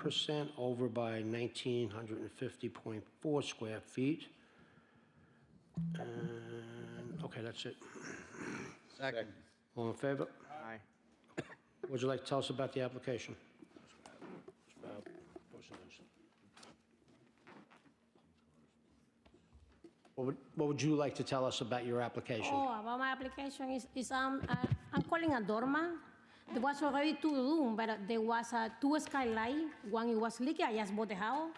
percent over by nineteen hundred and fifty point four square feet. And, okay, that's it. Second. All in favor? Aye. Would you like to tell us about the application? What would, what would you like to tell us about your application? Oh, about my application is, is um, uh, I'm calling a dormer. There was already two room, but uh, there was uh, two skylight. One it was leaky. I just bought the house,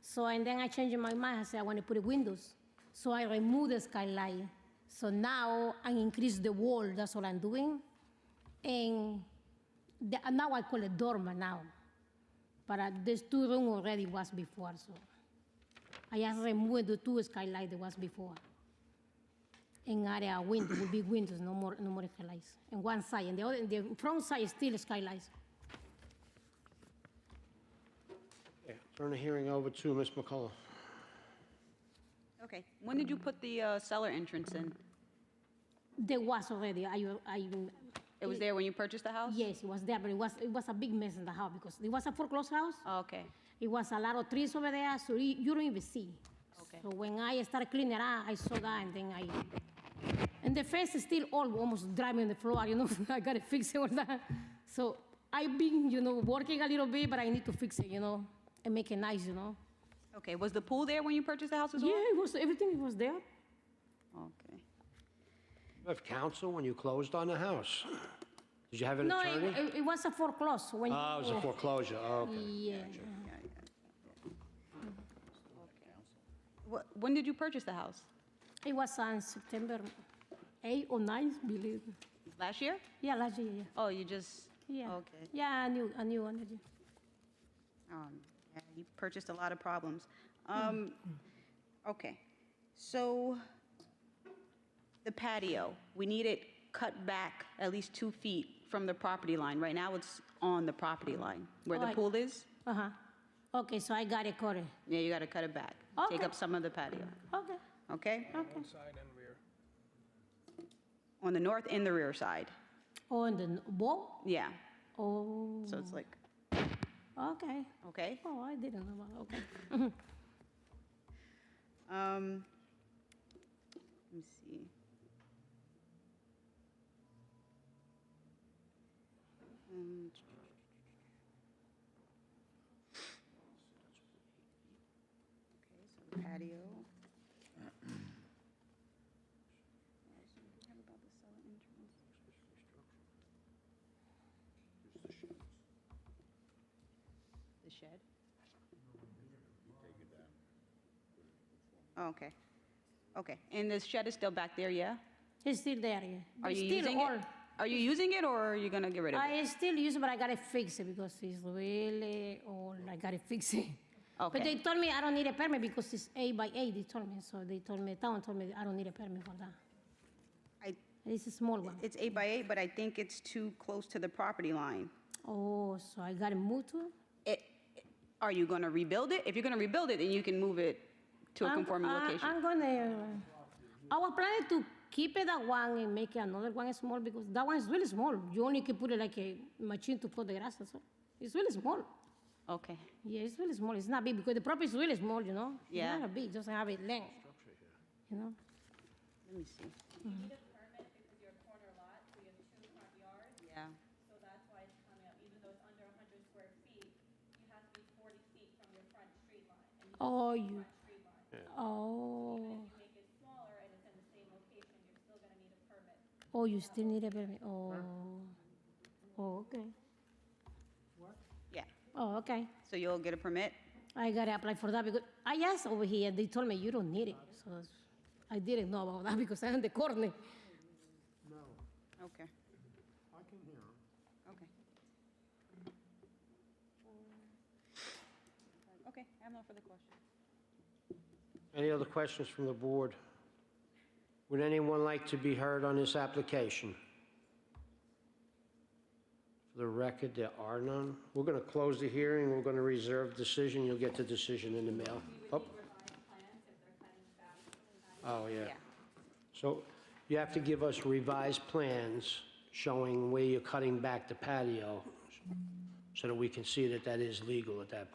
so and then I changed my mind. I said I want to put windows, so I removed the skylight. So now I increase the wall. That's all I'm doing, and the, uh, now I call it dormer now. But uh, there's two room already was before, so I just removed the two skylight that was before in area window will be windows, no more, no more skylights. And one side, and the other, the front side is still skylights. Yeah. Turn the hearing over to Ms. McCullough. Okay, when did you put the uh, cellar entrance in? There was already, I, I, It was there when you purchased the house? yes, it was there, but it was, it was a big mess in the house because it was a foreclosed house. Oh, Okay, It was a lot of trees over there, so you, you don't even see. Okay. So when I started cleaning up, I saw that, and then I, and the fence is still all almost drive me on the floor, you know, I gotta fix it all that. So I've been, you know, working a little bit, but I need to fix it, you know, and make it nice, you know. okay, was the pool there when you purchased the house as well? Yeah, it was, everything was there. Okay, You have counsel when you closed on the house. Did you have an No, it, attorney? it- it was a foreclosure when. Oh, it was a foreclosure, oh, okay. Yeah. Wh- when did you purchase the house? It was on September 8 or 9, believe. Last year? Yeah, last year, yeah. Oh, you just? Yeah. Okay. Yeah, a new, a new energy. Um, yeah, You purchased a lot of problems. Um, okay, so the patio, we need it cut back at least two feet from the property line. Right now, it's on the property line where the Right. pool is. Uh-huh. Okay, so I got it correct. Yeah, you got to cut it back. Take Okay. up some of the patio, Okay, okay? okay. On the north and the rear side, Oh, and then wall? yeah. Oh, So it's like, okay. okay. Oh, I didn't know about, okay. Um, let me see. Um, Okay, so the patio. The shed? Oh, okay. Okay, and the shed is still back there, yeah? It's still there, yeah. Are But you still using all- it? Are you using it, or are you gonna get rid of it? I still use it, but I gotta fix it because it's really old. I gotta fix it. But Okay. they told me I don't need a permit because it's eight by eight, they told me. So they told me, town told me I don't need a permit for that. I, It's a small one. it's eight by eight, but I think it's too close to the property line. Oh, so I gotta move to? it? It, are you gonna rebuild it? If you're gonna rebuild it, then you can move it to a I'm- conforming I- location. I'm gonna, I was planning to keep it that one and make another one small because that one is really small. You only can put it like a machine to cut the grass, that's all. It's really small. Okay, Yeah, it's really small. It's not big because the property is really small, you know? It's Yeah. Not a big, just have a length. You know? let me see. Yeah, So that's why it's coming up, even though it's under hundred square feet, you have to be forty feet from your front street line. And you Oh, you, street line, oh, if you make it smaller and it's in the same location, you're still gonna need a permit. oh, you still need a permit, oh. Oh, okay. yeah. Oh, okay. So you'll get a permit? I gotta apply for that because I asked over here, they told me you don't need it. So I didn't know about that because I'm the corner. Okay. I can hear Okay. Okay, I have no further questions. Any other questions from the board? Would anyone like to be heard on this application? For the record, there are none. We're going to close the hearing, we're going to reserve decision, you'll get the decision in the mail. Oh. Oh, yeah. Yeah. So you have to give us revised plans showing where you're cutting back the patio so that we can see that that is legal at that point.